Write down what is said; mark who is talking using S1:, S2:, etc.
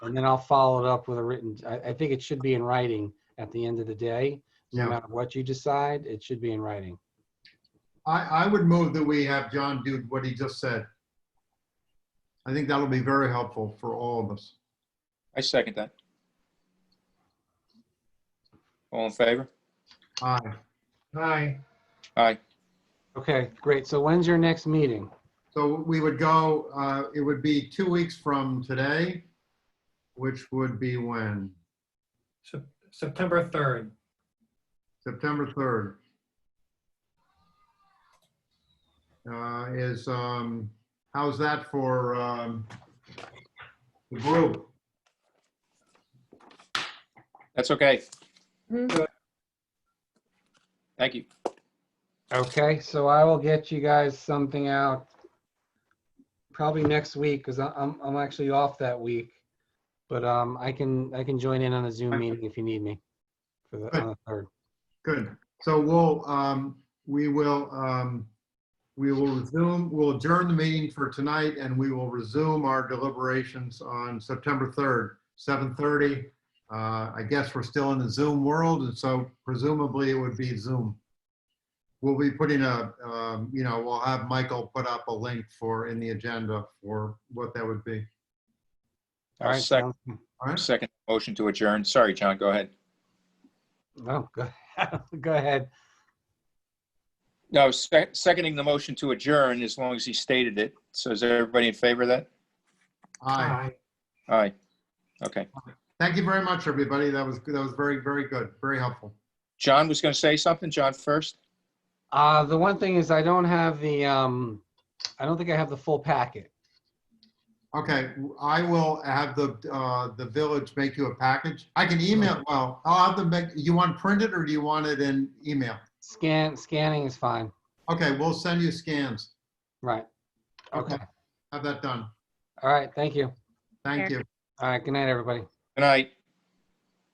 S1: And then I'll follow it up with a written, I, I think it should be in writing at the end of the day. No
S2: Yeah.
S1: matter what you decide, it should be in writing.
S2: I, I would move that we have John do what he just said. I think that'll be very helpful for all of us.
S3: I second that. All in favor?
S2: Aye. Aye.
S3: Aye.
S1: Okay, great. So when's your next meeting?
S2: So we would go, uh, it would be two weeks from today, which would be when?
S4: Sep- September 3rd.
S2: September 3rd. Uh, Is, um, how's that for um, the group?
S3: That's okay.
S4: Mhm.
S3: Thank you.
S1: Okay, so I will get you guys something out probably next week because I'm, I'm actually off that week. But um, I can, I can join in on a Zoom meeting if you need me for the, on the third.
S2: Good. So we'll, um, we will, um, we will resume, we'll adjourn the meeting for tonight and we will resume our deliberations on September 3rd, 7:30. Uh, I guess we're still in the Zoom world and so presumably it would be Zoom. We'll be putting a, um, you know, we'll have Michael put up a link for, in the agenda for what that would be.
S1: All right.
S3: Sec-
S1: sounds-
S2: All right?
S3: Second motion to adjourn. Sorry, John, go ahead.
S1: No, Oh, go, go ahead.
S3: No, sec- seconding the motion to adjourn as long as he stated it. So is everybody in favor of that?
S2: Aye.
S3: Aye. Okay.
S2: Thank you very much, everybody. That was, that was very, very good, very helpful.
S3: John was going to say something. John first.
S1: Uh, the one thing is I don't have the, um, I don't think I have the full packet.
S2: Okay, I will have the, uh, the village make you a package. I can email, well, I'll have them make, you want printed or do you want it in email?
S1: Scan, scanning is fine.
S2: Okay, we'll send you scans.
S1: Right. Okay.
S2: Have that done.
S1: All right. Thank you.
S2: Thank you.
S1: All right. Good night, everybody.
S3: Good night.